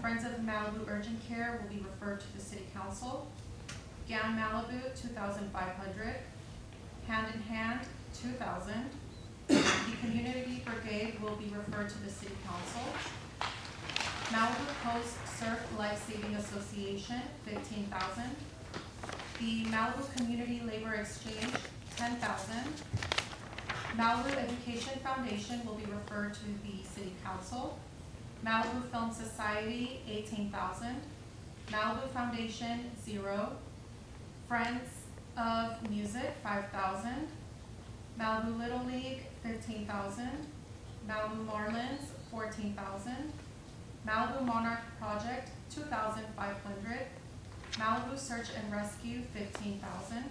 Friends of Malibu Urgent Care will be referred to the city council. Gown Malibu, two thousand five hundred. Hand in Hand, two thousand. The Community Brigade will be referred to the city council. Malibu Coast Surf Life Saving Association, fifteen thousand. The Malibu Community Labor Exchange, ten thousand. Malibu Education Foundation will be referred to the city council. Malibu Film Society, eighteen thousand. Malibu Foundation, zero. Friends of Music, five thousand. Malibu Little League, fifteen thousand. Malibu Marlins, fourteen thousand. Malibu Monarch Project, two thousand five hundred. Malibu Search and Rescue, fifteen thousand.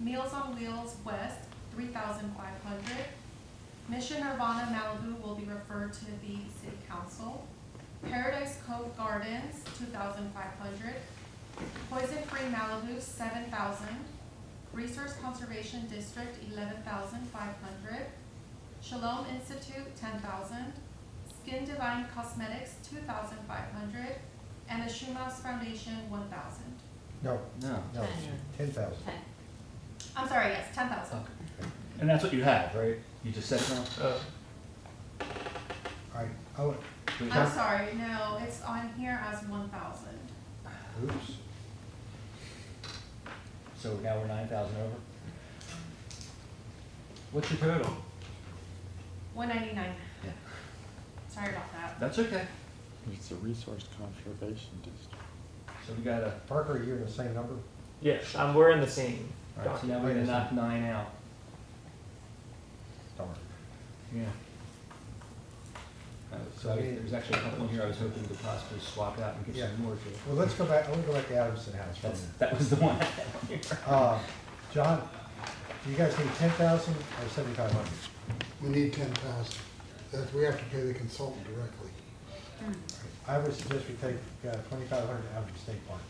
Meals on Wheels West, three thousand five hundred. Mission Nirvana Malibu will be referred to the city council. Paradise Cove Gardens, two thousand five hundred. Poison Free Malibu, seven thousand. Resource Conservation District, eleven thousand five hundred. Shalom Institute, ten thousand. Skin Divine Cosmetics, two thousand five hundred. And the Schumaus Foundation, one thousand. No, No. no, Ten. ten thousand. Ten. I'm sorry, yes, ten thousand. And that's what you have, right? You just said no? Oh, All right, oh, We I'm have- sorry, no, it's on here as one thousand. oops. So now we're nine thousand over? What's your total? One ninety-nine. Yeah. Sorry about that. That's okay. It's a resource conservation district. So we got a, Parker, you're in the same number? Yes, um, we're in the same alright, so document. now we're gonna Wait a knock nine out. Darn. Yeah. Uh, so I- there's actually a couple in here I was hoping to possibly swap out and get Yeah. some more to. Well, let's go back, I want to go back to Adamson House for a That's, minute. that was the one I had on here. Uh, John, do you guys need ten thousand or seventy-five hundred? We need ten thousand, that we have to pay the consultant directly. I would suggest we take uh, twenty-five hundred out of the state parks.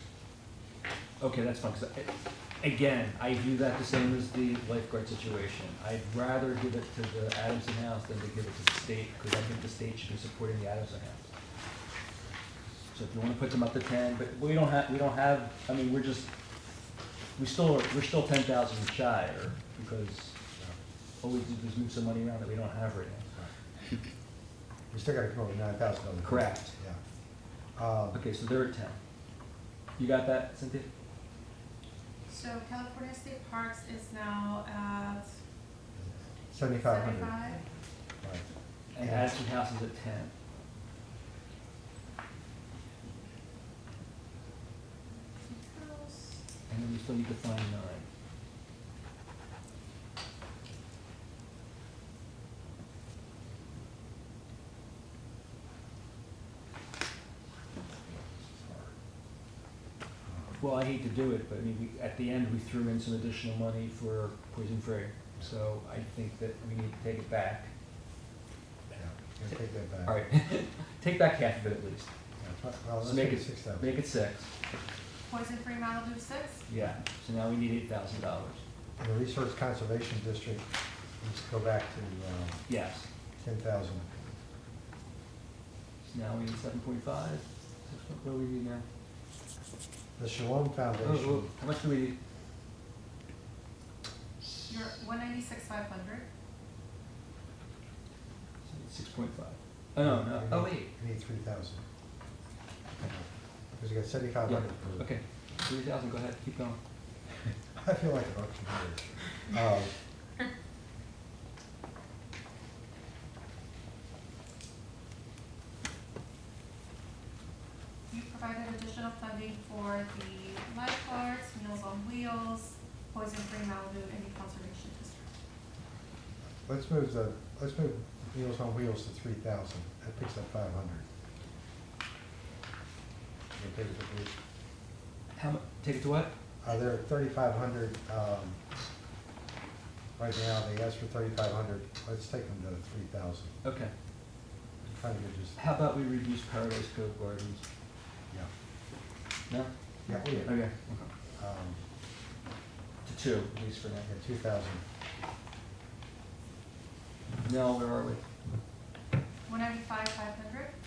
Okay, that's fine, 'cause I, again, I view that the same as the lifeguard situation. I'd rather give it to the Adamson House than to give it to the state, because I think the state should be supporting the Adamson House. So if you wanna put them up to ten, but we don't have, we don't have, I mean, we're just, we still, are- we're still ten thousand shy, or, because all we did was move some money around that we don't have right now. We still gotta come up with nine thousand dollars. Correct. Yeah. Um, Okay, so they're at ten. You got that, Cynthia? So California State Parks is now at Seventy-five hundred. seventy-five. Right. And Yeah. Adamson House is at ten. And then we still need to find nine. Um, Well, I hate to do it, but I mean, we, at the end, we threw in some additional money for Poison Free, so I think that we need to take it back. Yeah, yeah, take that back. All right, take back half of it at least. Yeah, tw- Well, So let's make make it- it six thousand. Make it six, Poison Free Malibu six, yeah, so now we need eight thousand dollars, The Resource Conservation District, let's go back to um, yes. ten thousand. So now we need seven point five, what do we need now? The Shalom Oh, oh, Foundation, How much do we need? you're one ninety-six, five hundred. Six point five. Oh, no, no, oh, wait, we need three thousand. Because you got seventy-five hundred for. okay, three thousand, go ahead, keep going. I feel like an auctioneer. Um, You provided additional funding for the lifeguards, Meals on Wheels, Poison Free Malibu, and the Conservation District. Let's move the, let's move Meals on Wheels to three thousand, that picks up five hundred. How mu, take it to what? Uh, they're thirty-five hundred, um, right now, they asked for thirty-five hundred, let's take them to three thousand. Okay, I'm trying to get just, how about we reduce Paradise Cove Gardens? yeah, No? yeah, we Okay, did. okay. Um, To two, at least for now. yeah, two thousand, No, where are we? One ninety-five, five hundred,